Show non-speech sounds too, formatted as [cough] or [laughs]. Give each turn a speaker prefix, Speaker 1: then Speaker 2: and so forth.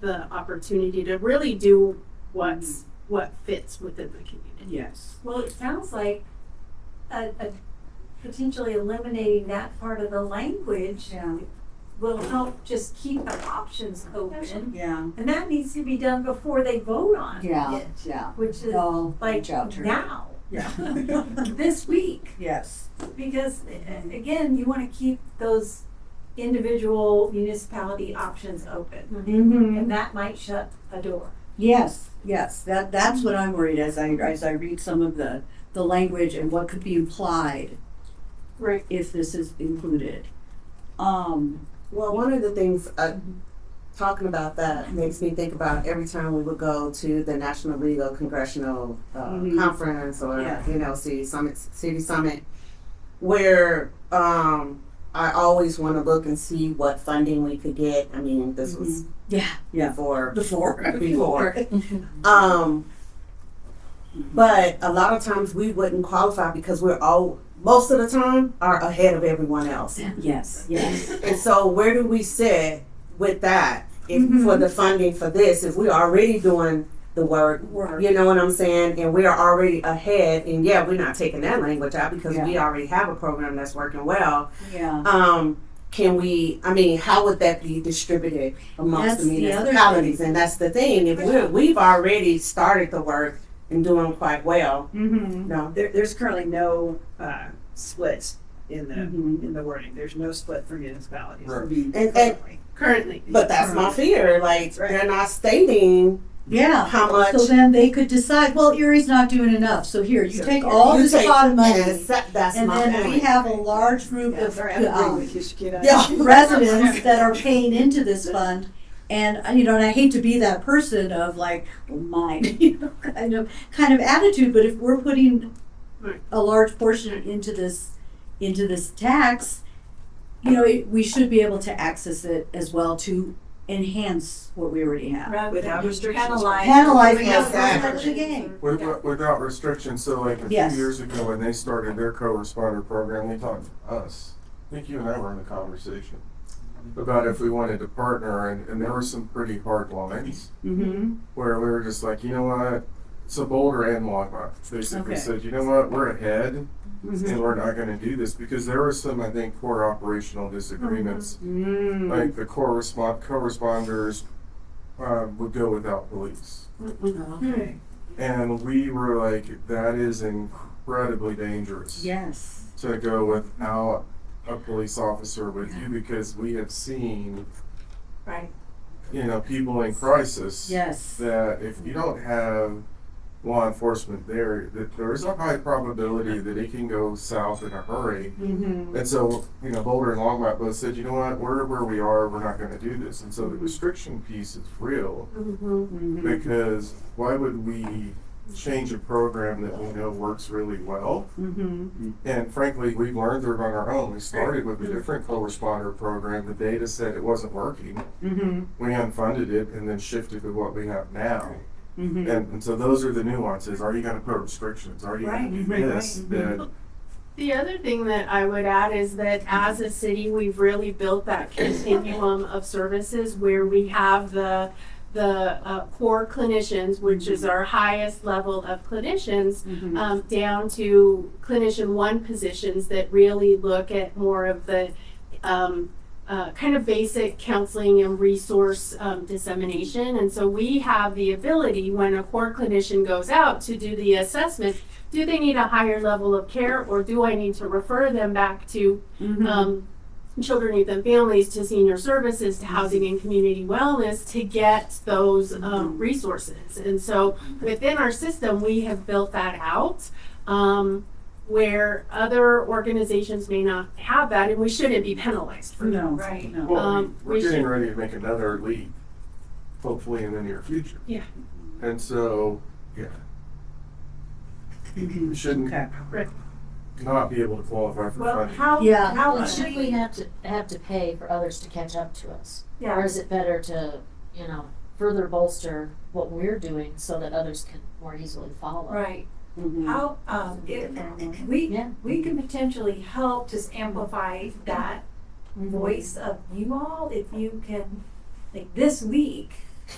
Speaker 1: the opportunity to really do what's
Speaker 2: Mm-hmm.
Speaker 1: what fits within the community.
Speaker 2: Yes.
Speaker 3: Well, it sounds like a, a potentially eliminating that part of the language
Speaker 2: Yeah.
Speaker 3: will help just keep the options open.
Speaker 2: Yeah.
Speaker 3: And that needs to be done before they vote on
Speaker 4: Yeah,
Speaker 3: it,
Speaker 4: yeah.
Speaker 3: which is
Speaker 4: No,
Speaker 3: like
Speaker 4: reach out to her.
Speaker 3: now,
Speaker 2: Yeah.
Speaker 3: [laughs] this week.
Speaker 2: yes.
Speaker 3: Because uh, again, you want to keep those individual municipality options open.
Speaker 4: Mm-hmm.
Speaker 3: And that might shut a door.
Speaker 4: Yes, yes. That that's what I'm worried as I as I read some of the the language and what could be implied
Speaker 1: Right.
Speaker 4: if this is included. Um,
Speaker 5: Well, one of the things uh, talking about that makes me think about every time we would go to the National League of Congressional uh,
Speaker 4: Mhm.
Speaker 5: Conference or
Speaker 4: Yeah.
Speaker 5: you know City Summit, City Summit, where um, I always want to look and see what funding we could get. I mean, this was
Speaker 4: Mm-hmm. Yeah. Yeah.
Speaker 5: before
Speaker 4: before
Speaker 5: [laughs] before.
Speaker 4: [laughs]
Speaker 5: um, but a lot of times we wouldn't qualify because we're all most of the time are ahead of everyone else.
Speaker 4: Yes, yes.
Speaker 5: And so where do we sit with that if
Speaker 4: Mm-hmm.
Speaker 5: for the funding for this if we're already doing the work
Speaker 4: Work.
Speaker 5: you know what I'm saying and we are already ahead and yeah we're not taking that language out because we already have a program that's working well
Speaker 4: Yeah.
Speaker 5: um can we I mean how would that be distributed amongst
Speaker 4: That's
Speaker 5: the
Speaker 4: the other
Speaker 5: municipalities and that's the thing if we're, we've already started the work and doing quite well
Speaker 4: Mm-hmm.
Speaker 5: no
Speaker 2: There, there's currently no uh, split in the
Speaker 4: Mhm.
Speaker 1: Mm-hmm.
Speaker 2: in the wording. There's no split for municipalities.
Speaker 4: Mm-hmm.
Speaker 5: and, and
Speaker 2: Currently.
Speaker 1: Currently.
Speaker 5: but that's my fear like
Speaker 2: Right.
Speaker 5: they're not stating
Speaker 4: Yeah.
Speaker 5: how much
Speaker 4: So then they could decide, well, Erie's not doing enough, so here, you
Speaker 2: So
Speaker 4: take
Speaker 2: here,
Speaker 4: all
Speaker 5: you
Speaker 4: this
Speaker 5: take-
Speaker 4: pot of money.
Speaker 5: Yes, that- that's
Speaker 4: And
Speaker 5: my
Speaker 4: then we
Speaker 5: point.
Speaker 4: have a large group
Speaker 2: Yeah,
Speaker 4: of,
Speaker 2: sorry, I'm agreeing
Speaker 4: um,
Speaker 2: with you, Shakira.
Speaker 5: Yeah.
Speaker 4: residents that are paying into this fund. And uh, you know, and I hate to be that person of like well, mine, [laughs] you know, kind of kind of attitude. But if we're putting
Speaker 1: Right.
Speaker 4: a large portion into this into this tax, you know, it, we should be able to access it as well to enhance what we already have.
Speaker 3: Rather
Speaker 2: Without
Speaker 3: than
Speaker 2: restrictions.
Speaker 3: Penalize.
Speaker 4: Penalize
Speaker 5: Yes,
Speaker 4: us the game.
Speaker 6: With- with- Without restrictions, so like a
Speaker 4: Yes.
Speaker 6: few years ago when they started their co-responder program, they talked to us. I think you and I were in the conversation about if we wanted to partner, and, and there were some pretty hard lines
Speaker 4: Mm-hmm.
Speaker 6: where we were just like, you know what? So Boulder and Longmont basically
Speaker 4: Okay.
Speaker 6: said, you know what? We're ahead, and we're not going to do this because there were some, I think, core operational disagreements. Like the core respond co-responders uh, would go without police.
Speaker 4: Uh-huh.
Speaker 2: Okay.
Speaker 6: And we were like, that is incredibly dangerous
Speaker 4: Yes.
Speaker 6: to go without a police officer with you because we have seen,
Speaker 3: Right.
Speaker 6: you know, people in crisis
Speaker 4: Yes.
Speaker 6: that if you don't have law enforcement there, that there is a high probability that it can go south in a hurry.
Speaker 4: Mm-hmm.
Speaker 6: And so, you know, Boulder and Longmont both said, you know what, we're where we are, we're not going to do this. And so the restriction piece is real
Speaker 4: Mm-hmm.
Speaker 6: because why would we change a program that we know works really well?
Speaker 4: Mm-hmm. Mm-hmm.
Speaker 6: And frankly, we learned through it on our own. We started with a different co-responder program. The data said it wasn't working.
Speaker 4: Mm-hmm.
Speaker 6: We unfunded it and then shifted to what we have now.
Speaker 4: Mm-hmm.
Speaker 6: And, and so those are the nuances. Are you going to put restrictions? Are you going to
Speaker 4: Right,
Speaker 6: do
Speaker 4: right, Mm-hmm.
Speaker 6: this?
Speaker 4: right.
Speaker 6: That,
Speaker 1: The other thing that I would add is that as a city, we've really built that continuum of services where we have the the uh, core clinicians, which is our highest level of clinicians,
Speaker 4: Mm-hmm.
Speaker 1: um, down to clinician one positions that really look at more of the um, uh, kind of basic counseling and resource um, dissemination. And so we have the ability when a core clinician goes out to do the assessment do they need a higher level of care or do I need to refer them back to
Speaker 4: Mm-hmm.
Speaker 1: um, children, youth, and families to senior services to housing and community wellness to get those um, resources. And so within our system, we have built that out. Um, where other organizations may not have that, and we shouldn't be penalized for
Speaker 4: no.
Speaker 3: Right.
Speaker 4: No.
Speaker 6: well,
Speaker 1: Um,
Speaker 6: we,
Speaker 1: we
Speaker 6: are getting
Speaker 1: should-
Speaker 6: ready to make another leap, hopefully in the near future.
Speaker 1: Yeah.
Speaker 6: And so, yeah, we shouldn't
Speaker 2: Okay.
Speaker 6: not be able to qualify for
Speaker 3: Well,
Speaker 6: funding.
Speaker 3: how,
Speaker 4: Yeah.
Speaker 3: how
Speaker 7: Should we have to, have to pay for others to catch up to us? Or
Speaker 3: Yeah,
Speaker 7: is it better to, you know, further bolster what we're doing so that others can more easily follow?
Speaker 3: right.
Speaker 4: Mm-hmm.
Speaker 3: How, um, it, we,
Speaker 7: Yeah.
Speaker 3: we can potentially help just amplify
Speaker 7: Mm-hmm.
Speaker 3: that voice of you all if you can, like this week,